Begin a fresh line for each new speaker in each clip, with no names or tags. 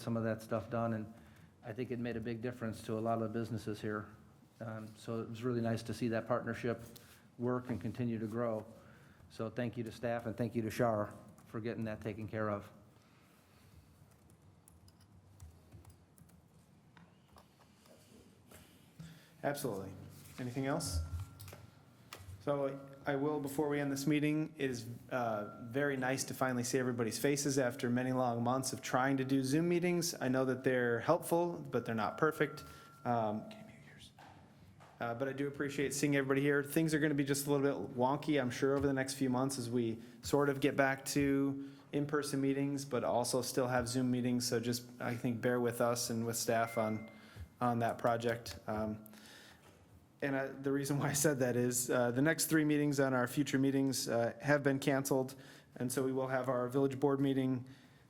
some of that stuff done, and I think it made a big difference to a lot of the businesses here. Um, So it was really nice to see that partnership work and continue to grow. So thank you to staff, and thank you to Shar for getting that taken care of.
Absolutely. Anything else? So I will, before we end this meeting, it is uh, very nice to finally see everybody's faces after many long months of trying to do Zoom meetings. I know that they're helpful, but they're not perfect. Um, uh, But I do appreciate seeing everybody here. Things are going to be just a little bit wonky, I'm sure, over the next few months as we sort of get back to in-person meetings, but also still have Zoom meetings. So just, I think, bear with us and with staff on, on that project. Um, and I- the reason why I said that is uh, the next three meetings on our future meetings uh, have been canceled. And so we will have our village board meeting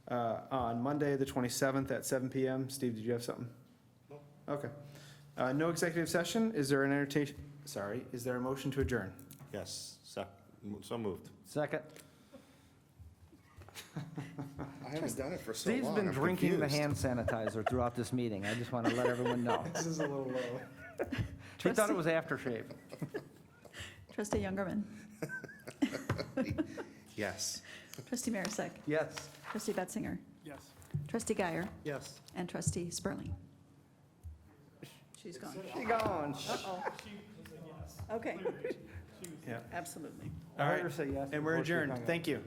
uh, on Monday, the 27th at 7 PM. Steve, did you have something? No. Okay. Uh, No executive session. Is there an entertain, sorry, is there a motion to adjourn?
Yes, sec- m- so moved.
Second.
I haven't done it for so long.
Steve's been
I'm
drinking the
confused.
hand sanitizer throughout this meeting. I just want to let everyone know.
This is a little low.
He thought it was aftershave.
Trustee Youngerman.
Yes.
Trustee Marisak.
Yes.
Trustee Betzinger.
Yes.
Trustee Guyer.
Yes.
And Trustee Spurling. She's gone.
She gone.
Okay,
Yeah.
absolutely.
I
All
heard
right.
her say yes
And we're
before she
adjourned.
hung up.
Thank you.